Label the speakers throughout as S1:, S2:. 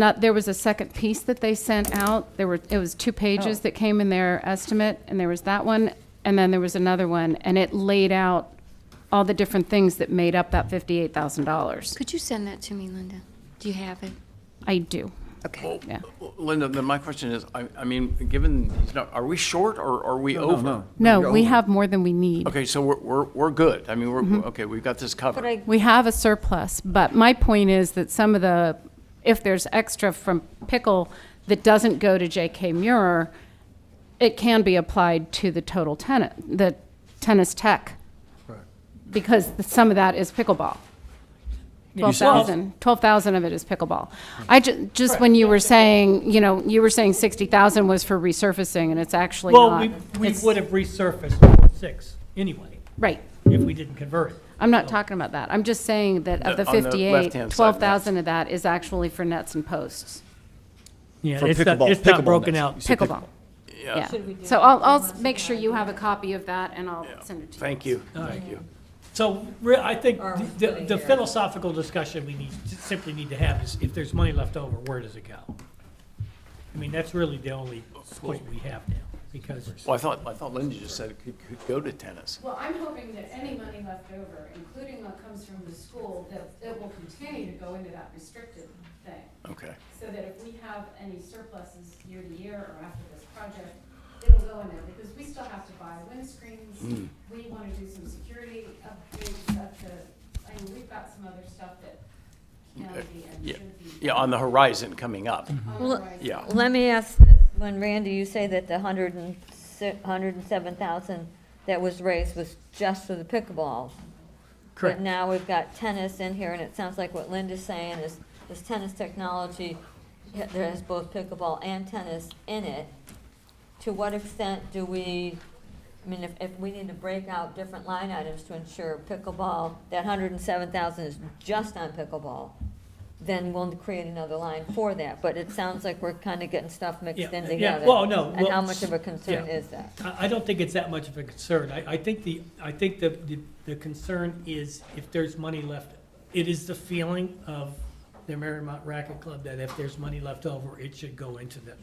S1: Not, there was a second piece that they sent out. There were, it was two pages that came in their estimate, and there was that one, and then there was another one, and it laid out all the different things that made up that fifty-eight thousand dollars.
S2: Could you send that to me, Linda? Do you have it?
S1: I do.
S2: Okay.
S1: Yeah.
S3: Linda, then my question is, I, I mean, given, these nu- are we short or are we over?
S1: No, we have more than we need.
S3: Okay, so we're, we're, we're good. I mean, we're, okay, we've got this covered.
S4: I-
S1: We have a surplus, but my point is that some of the, if there's extra from pickle that doesn't go to J.K. Muir, it can be applied to the total tenant, the tennis tech. Because the- some of that is pickleball. 12,000, 12,000 of it is pickleball. I ju, just when you were saying, you know, you were saying 60,000 was for resurfacing and it's actually
S5: Well,
S1: not.
S5: we, we
S1: It's-
S5: would have resurfaced Ward Six anyway,
S1: Right.
S5: if we didn't convert it.
S1: I'm not talking about that. I'm just saying that of
S3: Oh. The-
S1: the
S3: on the
S1: 58,
S3: left-hand side,
S1: 12,000 of that is actually for nets and posts,
S5: Yeah,
S6: For
S5: it's not,
S6: pickleball-
S5: it's not
S6: pickleball
S5: broken
S6: nets.
S5: out.
S6: You said pick-
S1: pickleball. Yeah. So I'll, I'll s- make sure you have a copy of that and I'll send it to you.
S3: Thank you, thank you.
S5: So, re- I think the, the philosophical discussion we need, simply need to have is, if there's money left over, where does it go? I mean, that's really the only point we have now, because,
S3: Well, I thought, I thought Linda just said it could, could go to tennis.
S1: Well, I'm hoping that any money left over, including what comes from the school, that it will continue to go into that restricted thing.
S3: Okay.
S1: So that if we have any surpluses year to year or after this project, it'll go in there, because we still have to buy
S3: Hmm.
S1: windscreens. We wanna do some security upgrades up to, I mean, we've got some other stuff that can be and
S3: Yeah,
S1: should be.
S3: yeah, on the horizon coming up.
S1: Mm-hmm.
S4: Well,
S3: Yeah.
S4: Let me ask, this. when Randy, you say that the hundred and si- hundred and seven thousand that was raised was just for the pickleball.
S5: Correct.
S4: But now we've got tennis in here, and it sounds like what Linda's saying is, this tennis technology, yeah, there is both pickleball and tennis in it. To what extent do we, I mean, if, if we need to break out different line items to ensure pickleball, that hundred and seven thousand is just on pickleball, then we'll create another line for that, but it sounds like we're kinda getting stuff mixed
S5: Yeah,
S4: in
S5: yeah,
S4: together.
S5: well, no,
S4: And how
S5: well,
S4: much of a concern
S5: yeah.
S4: is that?
S5: I, I don't think it's that much of a concern. I, I think the, I think the, the- the concern is if there's money left, it is the feeling of the Marymount Racket Club that if there's money left over, it should go into the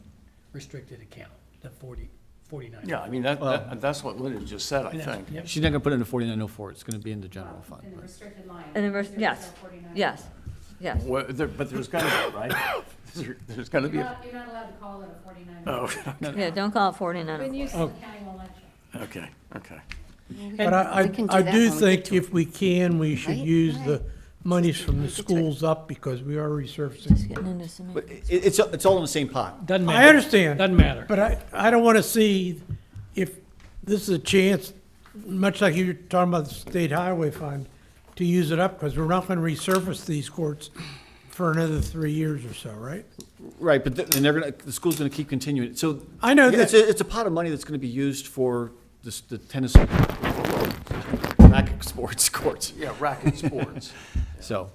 S5: restricted account, the forty, forty-nine.
S3: Yeah, I mean, that,
S6: Well-
S3: that- that's what Linda just said, I
S5: Yeah,
S3: think.
S5: yeah.
S6: She's not gonna put it in the forty-nine oh four, it's gonna be in the general fund.
S1: In the
S6: but-
S1: restricted line.
S4: And then, we're-
S1: There's
S4: yes,
S1: no 49.
S4: yes, yes.
S3: Well, there- But there's gonna be, right? There- There's gonna
S1: You're
S3: be, a-
S1: not, you're not allowed to call it a forty-nine.
S3: oh,
S4: Yeah, don't call it forty-nine.
S2: When you,
S1: The county will let you.
S3: okay, okay.
S7: But I,
S2: we can
S7: I-
S2: do that
S7: I do
S2: when we get
S7: think
S2: to it.
S7: if we can, we should
S2: Right,
S7: use
S2: right.
S7: the monies from the
S2: Just get to it.
S7: schools up because we are resurfacing.
S4: Just getting into some.
S6: But it, it's, it's all in the same pot.
S5: Doesn't matter.
S7: I understand.
S5: Doesn't matter.
S7: But I, I don't want to see if this is a chance, much like you were talking about the state highway fund, to use it up because we're not going to resurface these courts for another three years or so, right?
S6: Right, but th- and they're gonna, the school's gonna keep continuing, so.
S7: I know
S6: It's
S7: that-
S6: a, it's a pot of money that's gonna be used for this, the tennis, racket sports courts,
S3: Yeah, racket sports.
S6: so.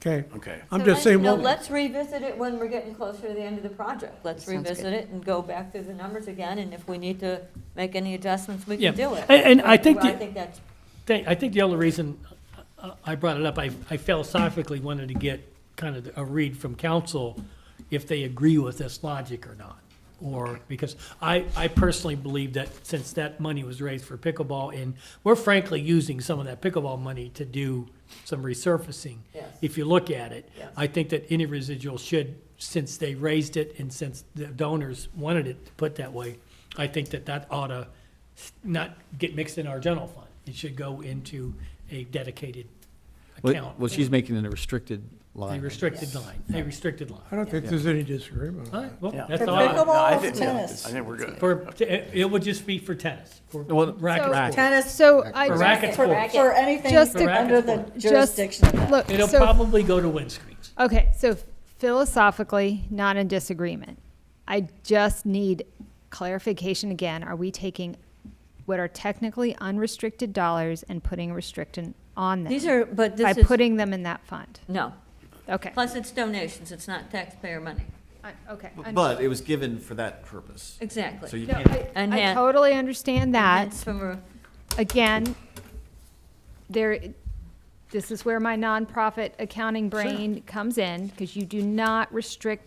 S7: Okay.
S3: Okay.
S7: I'm
S4: So
S7: just
S4: let-
S7: saying,
S4: No,
S7: well-
S4: let's revisit it when we're getting closer to the end of the project. Let's
S2: Sounds good.
S4: revisit it and go back through the numbers again, and if we need to make any adjustments, we
S5: Yeah.
S4: can do it.
S5: And- and I think
S4: Well, I
S5: the-
S4: think that's,
S5: Thank- I think the only reason I- I brought it up, I I philosophically wanted to get kind of a read from council if they agree with this logic or not. Or, because I, I personally believe that since that money was raised for pickleball, and we're frankly using some of that pickleball money to do some resurfacing.
S4: Yes.
S5: If you look at it.
S4: Yes.
S5: I think that any residual should, since they raised it and since the donors wanted it put that way, I think that that ought to not get mixed in our general fund. It should go into a dedicated
S6: Well,
S5: account,
S6: well, she's making it a restricted
S5: a
S6: line.
S5: restricted line, a restricted line.
S7: I don't think there's any disagreement.
S5: All right, well,
S3: Yeah.
S5: that's
S3: No,
S5: all.
S3: I-
S5: I-
S3: no, I
S8: Pickleball,
S3: think-
S8: tennis.
S3: I think we're good.
S5: For, it would just be for tennis, for
S6: Well,
S5: racket sport.
S8: Tennis, so
S5: For
S8: I,
S5: racket
S8: for,
S5: sports.
S8: for anything
S5: Just to-
S8: under the jurisdiction of that.
S5: It'll
S9: Look, so,
S5: probably go to windscreens.
S9: okay, so philosophically, not in disagreement. I just need clarification again. Are we taking what are technically unrestricted dollars and putting a restriction on them?
S4: these are, but
S9: By
S4: this is,
S9: putting them in that fund?
S4: no.
S9: Okay.
S4: Plus, it's donations, it's not taxpayer money.
S9: I- Okay.
S6: But it was given for that purpose, so
S4: Exactly.
S6: you
S9: No,
S6: can't.
S9: I,
S4: And
S9: I
S4: hand-
S9: totally understand that.
S4: That's from a-
S9: again, there,
S1: this is where my nonprofit accounting brain comes in, because you do not restrict